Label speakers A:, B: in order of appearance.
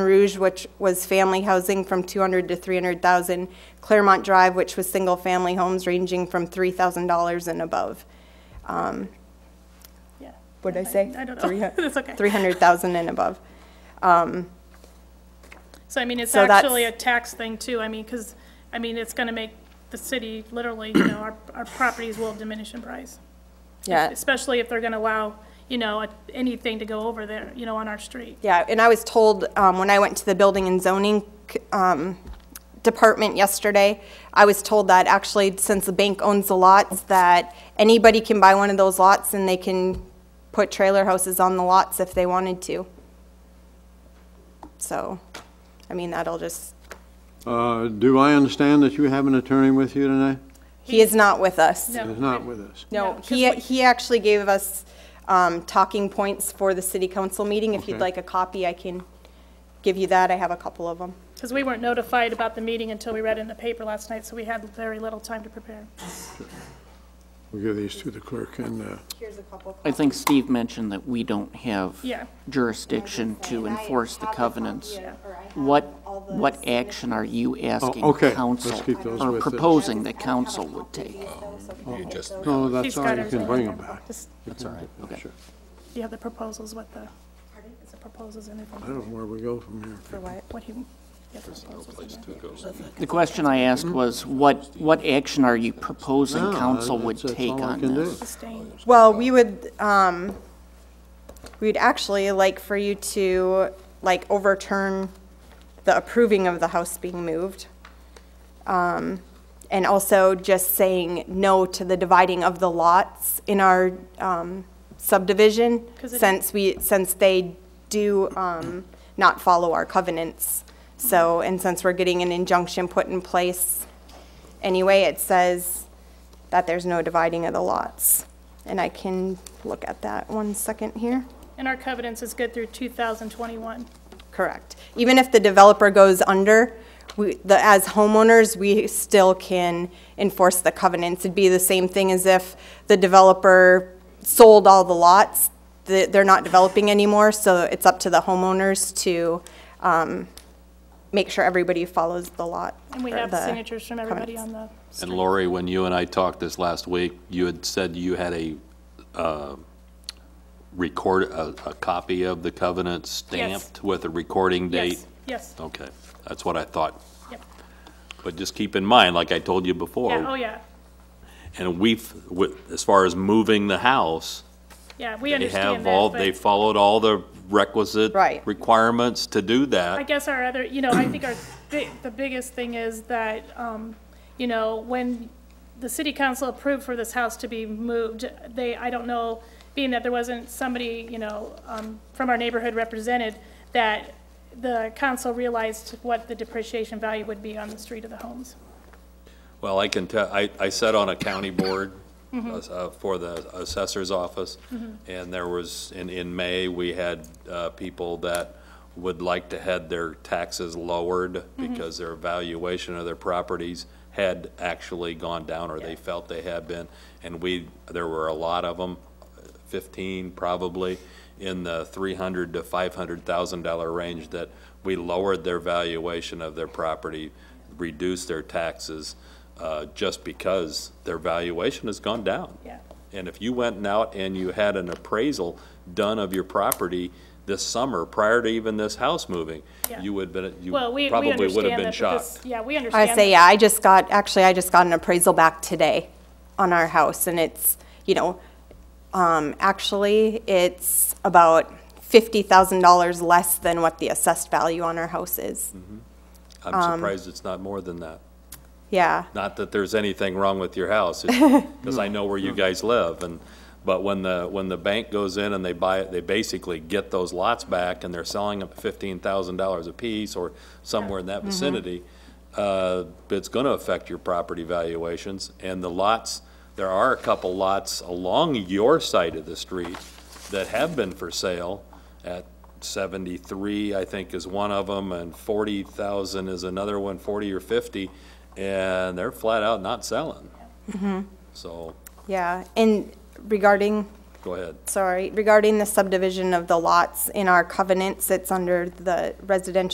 A: Rouge, which was family housing from 200 to 300,000. Claremont Drive, which was single-family homes ranging from $3,000 and above.
B: Yeah.
A: What did I say?
B: I don't know. That's okay.
A: 300,000 and above.
B: So I mean, it's
A: So that's-
B: actually a tax thing too, I mean, because, I mean, it's going to make the city literally, you know, our, our properties will diminish in price.
A: Yeah,
B: Especially if they're going to allow, you know, anything to go over there, you know, on our street.
A: yeah, and I was told, um, when I went to the Building and Zoning, um, Department yesterday, I was told that actually, since the bank owns the lots, that anybody can buy one of those lots and they can put trailer houses on the lots if they wanted to. So, I mean, that'll just,
C: Uh, Do I understand that you have an attorney with you tonight?
A: he is not with us.
B: No.
C: He's not with us.
B: No,
A: No,
B: 'cause
A: he,
B: what-
A: he actually gave us um, talking points for the city council meeting. If you'd
C: Okay.
A: like a copy, I can give you that. I have a couple of them.
B: Because we weren't notified about the meeting until we read it in the paper last night, so we had very little time to prepare.
C: We'll give these to the clerk and, uh,
A: Here's a couple.
D: I think Steve mentioned that we don't have
B: Yeah.
D: jurisdiction to enforce the covenants.
B: of-
D: What, what action are you asking
C: Oh, okay.
D: council?
C: Let's keep those
D: Or
C: with us.
D: proposing that council would take?
C: no, that's
B: He's
C: all,
B: got
C: you can
B: everything
C: bring
B: in
C: them
B: there.
C: back.
B: Just-
D: That's all right, okay.
C: Sure.
B: You have the proposals with the, is the proposals in
C: I
B: there?
C: don't know where we go from here.
B: What he, yeah, the proposals in there.
D: The question I asked was, what, what action are you proposing
C: No,
D: council would
C: that's- that's
D: take
C: all I
D: on
C: can do.
D: this?
B: Abstain.
A: Well, we would, um, we'd actually like for you to, like, overturn the approving of the house being moved. Um, And also just saying no to the dividing of the lots in our um, subdivision,
B: 'Cause it-
A: since we, since they do um, not follow our covenants. So,
B: Mm-hmm.
A: and since we're getting an injunction put in place anyway, it says that there's no dividing of the lots. And I can look at that one second here.
B: And our covenants is good through 2021.
A: Correct. Even if the developer goes under, we, the, as homeowners, we still can enforce the covenants. It'd be the same thing as if the developer sold all the lots, th- they're not developing anymore, so it's up to the homeowners to, um, make sure everybody follows the lot.
B: And we
A: or
B: have
A: the
B: signatures from everybody
A: covenants.
B: on the
E: And
B: street.
E: Lori, when you and I talked this last week, you had said you had a uh, record, a a copy of the covenant stamped with a recording date?
B: Yes, yes,
E: Okay, that's what I thought.
B: yep.
E: But just keep in mind, like I told you before.
B: Yeah, oh, yeah,
E: And we've, with- as far as moving the house,
B: yeah, we
E: they
B: understand
E: have all,
B: that,
E: they
B: but
E: followed all the requisite
A: Right.
E: requirements to do that.
B: I guess our other, you know, I think our, bi- the biggest thing is that, um, you know, when the city council approved for this house to be moved, they, I don't know, being that there wasn't somebody, you know, um, from our neighborhood represented, that the council realized what the depreciation value would be on the street of the homes.
E: Well, I can tell, I, I sat on a county board uh, for the assessor's office, and there was, in, in May, we had uh, people that would like to had their taxes lowered because their valuation of their properties had actually gone down, or they felt they had been. And we, there were a lot of them, 15 probably, in the 300 to 500,000 dollar range that we lowered their valuation of their property, reduced their taxes, uh, just because their valuation has gone down.
B: Yeah.
E: And if you went out and you had an appraisal done of your property this summer, prior to even this house moving,
B: Yeah.
E: you would have been, you
B: Well, we, we
E: probably would
B: understand
E: have been
B: that, but this-
E: shocked.
B: yeah, we understand.
A: I say,
B: that.
A: yeah, I just got, actually, I just got an appraisal back today on our house, and it's, you know, um, actually, it's about fifty thousand dollars less than what the assessed value on our house is.
B: um,
E: I'm surprised it's not more than that.
A: Yeah,
E: Not that there's anything wrong with your house, because I know where you guys live, and, but when the, when the bank goes in and they buy it, they basically get those lots back, and they're selling them at fifteen thousand dollars apiece, or somewhere in that vicinity, uh, it's gonna affect your property valuations, and the lots, there are a couple lots along your side of the street that have been for sale at seventy-three, I think, is one of them, and forty thousand is another one, forty or fifty, and they're flat out not selling. So,
A: yeah, and regarding,
E: go ahead.
A: sorry, regarding the subdivision of the lots in our covenants, it's under the residential